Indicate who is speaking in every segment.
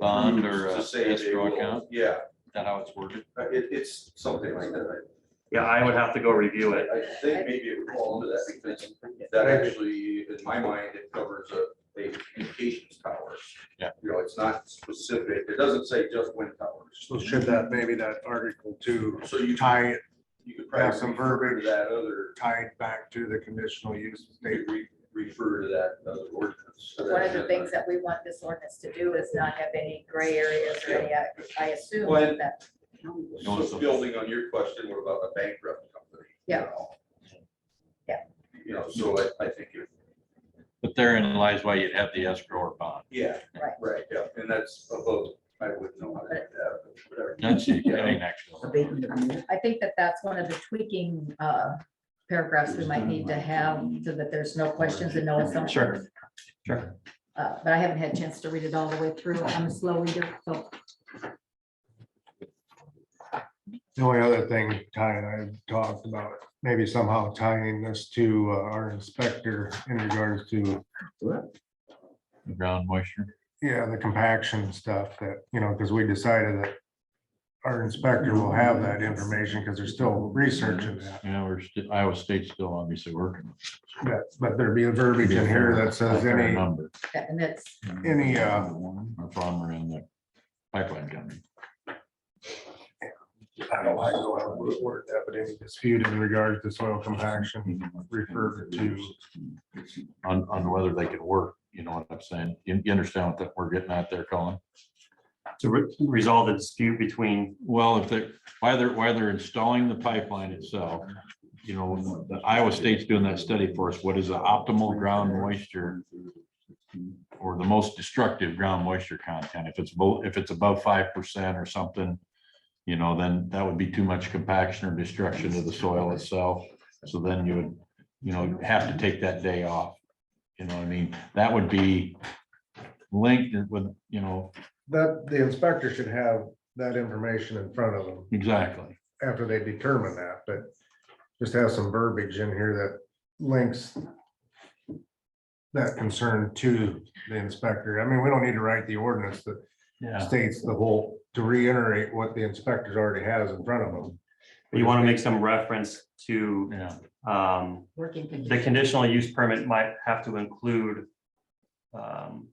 Speaker 1: bond or
Speaker 2: To
Speaker 1: a
Speaker 2: say they
Speaker 1: escrow
Speaker 2: will-
Speaker 1: account?
Speaker 2: Yeah,
Speaker 1: Is that how it's worded?
Speaker 2: uh, it, it's something like that.
Speaker 3: Yeah, I would have to go review
Speaker 2: I
Speaker 3: it.
Speaker 2: I think maybe it would fall into that because that actually, in my mind, it covers a, a communications tower.
Speaker 1: Yeah.
Speaker 2: You know, it's not specific. It doesn't say just wind towers.
Speaker 4: So should that, maybe that article two
Speaker 2: So you,
Speaker 4: tie it,
Speaker 2: you could
Speaker 4: have
Speaker 2: probably
Speaker 4: some
Speaker 2: refer to
Speaker 4: verbiage.
Speaker 2: that other,
Speaker 4: tie it back to the conditional use
Speaker 2: maybe
Speaker 4: state?
Speaker 2: re- refer to that other ordinance.
Speaker 5: One of the things that we want this ordinance to do is not have any gray areas or any, uh, I assume
Speaker 2: Well, and-
Speaker 5: that,
Speaker 2: So building on your question, what about a bankrupt company? you
Speaker 5: Yeah.
Speaker 2: know?
Speaker 5: Yeah.
Speaker 2: You know, so I, I think if
Speaker 1: But therein lies why you'd have the escrow or bond.
Speaker 2: Yeah.
Speaker 5: Right.
Speaker 2: Right, yeah, and that's above, I wouldn't know how to do that, but whatever.
Speaker 1: That's getting actual.
Speaker 5: I think that that's one of the tweaking, uh, paragraphs we might need to have so that there's no questions and no assumptions.
Speaker 3: Sure, sure.
Speaker 5: Uh, but I haven't had a chance to read it all the way through. I'm a slow reader, so.
Speaker 4: The only other thing, Ty and I have talked about, maybe somehow tying this to uh, our inspector in regards to,
Speaker 1: Ground moisture.
Speaker 4: yeah, the compaction stuff that, you know, because we decided that our inspector will have that information because they're still researching that.
Speaker 1: Yeah, we're, sti- Iowa State's still obviously working.
Speaker 4: But, but there'd be a verbiage in here that says
Speaker 1: Fair
Speaker 4: any,
Speaker 1: number.
Speaker 5: that- And that's,
Speaker 4: any, uh,
Speaker 1: Our farmer and the pipeline company.
Speaker 4: I don't like the way I would word that, but any dispute in regards to soil compaction. Refer to-
Speaker 1: On, on whether they could work, you know what I'm saying? You you understand what that we're getting at there, Colin?
Speaker 3: To re- resolve the dispute between,
Speaker 1: Well, if they're, why they're, why they're installing the pipeline itself, you know, the Iowa State's doing that study for us, what is the optimal ground moisture? Or the most destructive ground moisture content, if it's both, if it's above five percent or something. You know, then that would be too much compaction or destruction to the soil itself, so then you would, you know, have to take that day off. You know, what I mean, that would be linked with, you know,
Speaker 4: That, the inspector should have that information in front of them
Speaker 1: exactly.
Speaker 4: after they determine that, but just have some verbiage in here that links that concern to the inspector. I mean, we don't need to write the ordinance that
Speaker 1: Yeah.
Speaker 4: states the whole, to reiterate what the inspector already has in front of them.
Speaker 3: you want to make some reference to
Speaker 1: Yeah,
Speaker 3: um,
Speaker 5: working
Speaker 3: the
Speaker 5: conditions.
Speaker 3: conditional use permit might have to include um,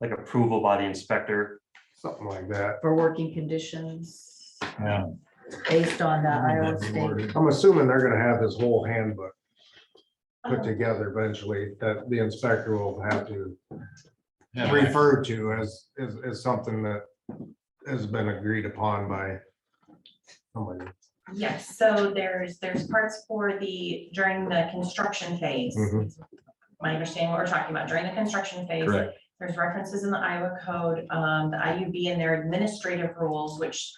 Speaker 3: like approval by the inspector.
Speaker 4: Something like that.
Speaker 5: For working conditions
Speaker 1: yeah.
Speaker 5: based on the Iowa
Speaker 1: That'd be
Speaker 5: State.
Speaker 1: worded.
Speaker 4: I'm assuming they're gonna have this whole handbook
Speaker 6: Oh, Uh-huh.
Speaker 4: put together eventually that the inspector will have to
Speaker 1: Yeah.
Speaker 4: refer to as, as, as something that has been agreed upon by somebody.
Speaker 6: Yes, so there's, there's parts for the, during the construction phase.
Speaker 4: Mhm.
Speaker 6: My understanding, what we're talking about during the construction phase.
Speaker 1: Correct.
Speaker 6: There's references in the Iowa code, um, the IUB and their administrative rules, which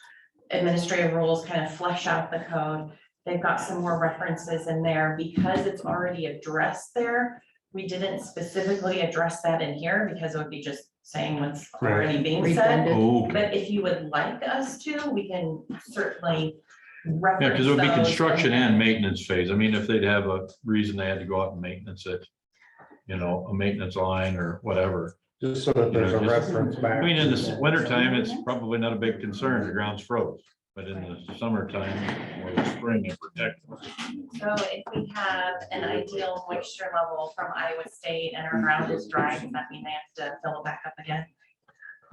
Speaker 6: administrative rules kind of flesh out the code. They've got some more references in there because it's already addressed there. We didn't specifically address that in here because it would be just saying what's already being said.
Speaker 5: redundant.
Speaker 1: Okay.
Speaker 6: But if you would like us to, we can certainly
Speaker 1: Yeah,
Speaker 6: reference
Speaker 1: because it would be
Speaker 6: those
Speaker 1: construction and maintenance phase. I mean, if they'd have a reason they had to go out and maintenance it, you know, a maintenance line or whatever.
Speaker 4: Just so that there's a reference
Speaker 1: I
Speaker 4: back.
Speaker 1: mean, in the winter time, it's probably not a big concern, the ground's froze, but in the summertime or the spring, it protects.
Speaker 6: So if we have an ideal moisture level from Iowa State and our ground is dry, does that mean they have to fill it back up again?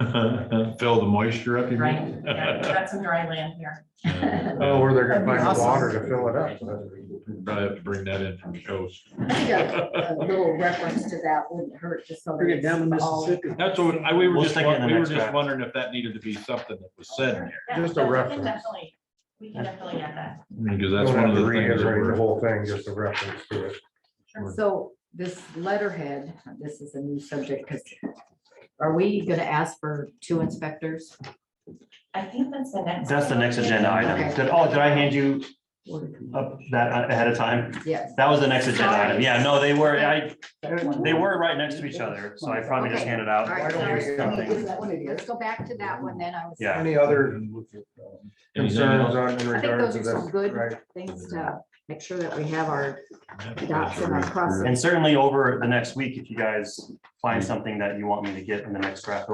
Speaker 1: Fill the moisture
Speaker 4: Mhm.
Speaker 1: up. you mean?
Speaker 6: Right, yeah, we've got some dry land here.
Speaker 4: Oh, where they're gonna find the
Speaker 5: Awesome.
Speaker 4: water to fill it up.
Speaker 1: Probably have to bring that in from the coast.
Speaker 5: I think A a little reference to that wouldn't hurt just so that
Speaker 7: Bring it down to
Speaker 5: it's all.
Speaker 7: Mississippi.
Speaker 1: That's what, I, we were
Speaker 3: We'll
Speaker 1: just,
Speaker 3: stick it in the
Speaker 1: we were
Speaker 3: next
Speaker 1: just
Speaker 3: draft.
Speaker 1: wondering if that needed to be something that was said in
Speaker 6: Yeah,
Speaker 4: Just a
Speaker 6: so we can
Speaker 4: reference.
Speaker 6: Definitely, we can definitely add that.
Speaker 1: here, because
Speaker 4: Don't
Speaker 1: that's one
Speaker 4: have
Speaker 1: of
Speaker 4: to
Speaker 1: the things. that
Speaker 4: reiterate the
Speaker 1: we're-
Speaker 4: whole thing, just a reference to it.
Speaker 5: So this letterhead, this is a new subject because are we going to ask for two inspectors?
Speaker 6: I think that's the next.
Speaker 3: That's the next agenda item.
Speaker 5: Okay.
Speaker 3: Did, oh, did I hand you
Speaker 5: Or-
Speaker 3: up that ahead of time?
Speaker 5: Yes.
Speaker 3: That was the next agenda item. Yeah, no, they were, I, they
Speaker 7: They
Speaker 3: were right next to each other, so I probably just
Speaker 5: Okay.
Speaker 3: handed
Speaker 5: All
Speaker 3: out.
Speaker 5: right,
Speaker 4: don't we-
Speaker 5: sorry.
Speaker 3: something.
Speaker 5: Let's go back to that one then. I was.
Speaker 3: Yeah.
Speaker 4: Any other
Speaker 1: Anything
Speaker 4: concerns
Speaker 1: else?
Speaker 4: on in
Speaker 5: I think those
Speaker 4: regards to
Speaker 5: are some
Speaker 4: this?
Speaker 5: good
Speaker 4: Right.
Speaker 5: things to make sure that we have our dots in our crosses.
Speaker 3: And certainly over the next week, if you guys find something that you want me to get in the next draft